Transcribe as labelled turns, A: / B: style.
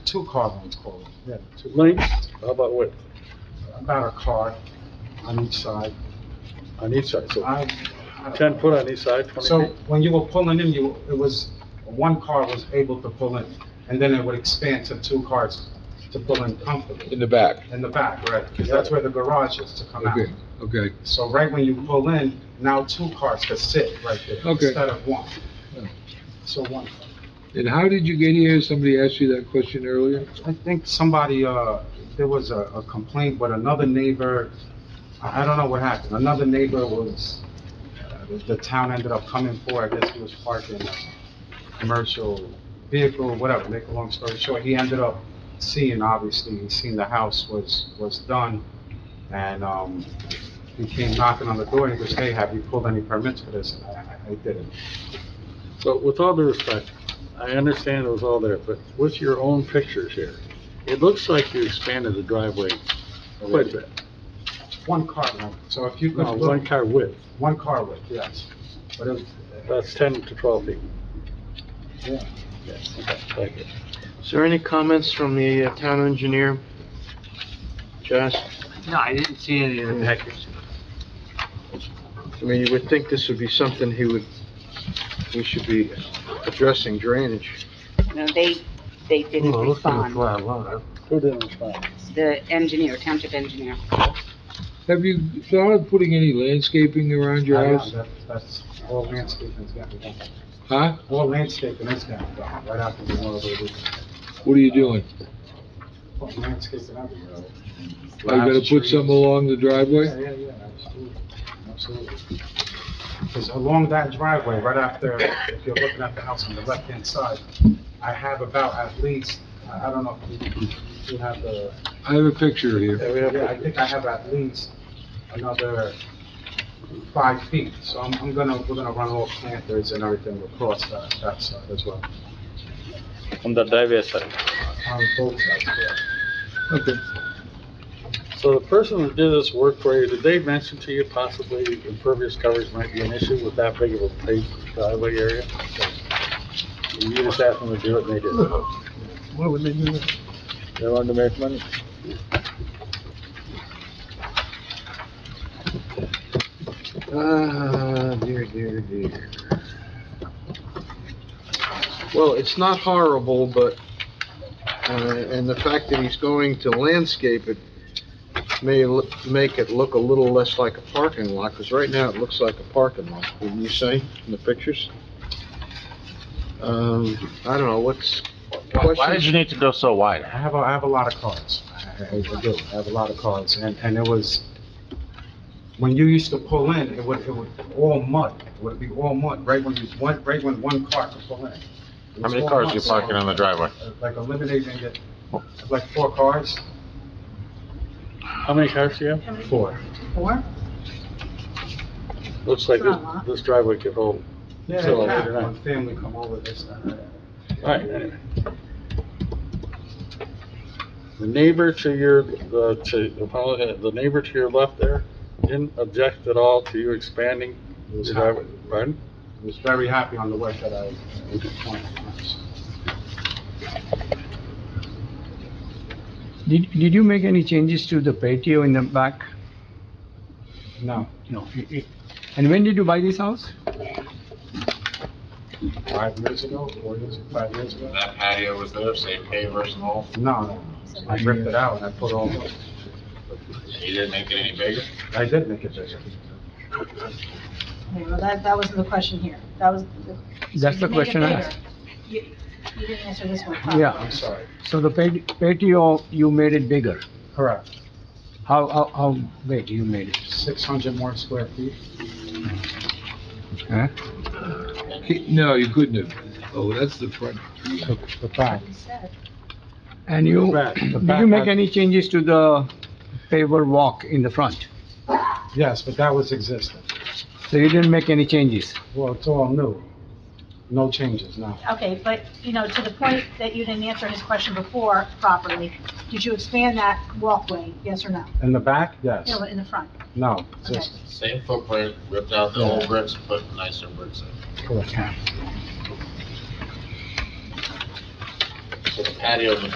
A: two car length quality, yeah, two.
B: Length, how about width?
A: About a car on each side.
B: On each side, so
A: I- I-
B: ten foot on each side, twenty
A: So
B: feet?
A: when you were pulling in, you, it was, one car was able to pull in, and then it would expand to two cars to pull in comfortably,
C: in the back.
A: in the back, right? Because that's where the garage is to come out.
C: Okay, okay.
A: So right when you pull in, now two cars could sit right there
C: Okay.
A: instead of one.
C: Yeah.
A: So one,
C: And how did you get here? Somebody asked you that question earlier?
A: I think somebody, uh, there was a a complaint, but another neighbor, I I don't know what happened. Another neighbor was, uh, the- the town ended up coming for, I guess he was parking a commercial vehicle, whatever, make a long story short. He ended up seeing, obviously, he seen the house was, was done, and, um, he came knocking on the door and he goes, hey, have you pulled any permits for this? And I, I- I didn't.
B: So with all due respect, I understand it was all there, but with your own pictures here, it looks like you expanded the driveway quite a bit.
A: One car length, so if you could
B: No,
A: look-
B: one car width,
A: one car width, yes. But it,
B: that's ten to twelve feet.
A: yeah.
B: Okay, thank you.
D: Is there any comments from the uh, town engineer? Josh?
E: No, I didn't see any
D: Hmm.
E: of the pictures.
D: I mean, you would think this would be something he would, we should be addressing drainage.
F: No, they, they didn't respond.
B: Who didn't respond?
F: The engineer, township engineer.
C: Have you thought of putting any landscaping around your
A: Yeah,
C: house?
A: that- That's, all landscaping's got to be done.
C: Huh?
A: All landscaping is got to be done, right after the Memorial Day weekend.
C: What are you doing?
A: Put landscaping everywhere.
C: Are you gonna put some along the
A: Yeah,
C: driveway?
A: yeah, yeah, absolutely, absolutely. Because along that driveway, right after, if you're looking at the house on the left-hand side, I have about at least, I I don't know if you- you have the
C: I have a picture here.
B: we have
A: Yeah, I think I have at least another five feet, so I'm, I'm gonna, we're gonna run all planters and everything across that, that side as well,
E: On the driveway side.
A: on both sides, correct?
C: Okay.
B: So the person who did this work for you, did they mention to you possibly impervious coverage might be an issue with that big of a paved driveway area? You just asked them to do it and they did. it.
C: What would they do?
B: They wanted to make money.
D: Ah, dear, dear, dear. Well, it's not horrible, but, uh, and the fact that he's going to landscape it may l- make it look a little less like a parking lot, because right now it looks like a parking lot, wouldn't you say, in the pictures? Um, I don't know, what's,
E: Why did you
D: question?
E: need to go so wide?
A: I have, a- I have a lot of cars, I, I I do, I have a lot of cars, and, and it was, when you used to pull in, it would, it would, all mud, it would be all mud, right when you, one, right when one car could pull in. It
E: How
A: was
E: many
A: all
E: cars
A: mud,
E: you
A: so-
E: parking on the driveway?
A: Like eliminating it, like four cars,
B: How many cars do you have?
A: four.
F: Or?
B: Looks like this,
F: Not a lot.
B: this driveway could hold.
A: Yeah,
B: So,
A: it
B: later
A: happened.
B: on.
A: When family come over this time.
B: Right. The neighbor to your, uh, to, apologize, the neighbor to your left there didn't object at all to you expanding
A: He
B: the
A: was
B: driveway,
A: happy.
B: pardon?
A: He was very happy on the work that I was doing.
G: Did, did you make any changes to the patio in the back?
A: No,
G: No. And when did you buy this house?
A: five years ago, four years, five years ago?
H: That patio was there, same pavers and all,
A: No, no. I ripped it out and I put all,
H: you didn't make it any bigger?
A: I did make it bigger.
I: Okay, well, that, that wasn't the question here. That was. the-
G: That's the
I: Make it
G: question I
I: bigger.
G: asked.
I: You you didn't answer this one properly.
G: Yeah,
A: I'm sorry.
G: so the pat- patio, you made it bigger.
A: Correct.
G: How, how, how big you made it?
A: Six hundred more square feet?
G: Huh?
C: No, you couldn't have. Oh, that's the front.
A: The the back.
I: You said.
G: And you,
B: Back. The
G: did
A: back
G: you make
A: had-
G: any changes to the paver walk in the front?
A: Yes, but that was existing.
G: So you didn't make any changes?
A: Well, it's all new. No changes, no.
I: Okay, but, you know, to the point that you didn't answer his question before properly, did you expand that walkway, yes or no?
A: In the back, yes.
I: You know, in the front?
A: No,
I: Okay.
A: just,
H: Same footprint, ripped out the old bricks, put nicer bricks in.
A: correct.
H: So the patio was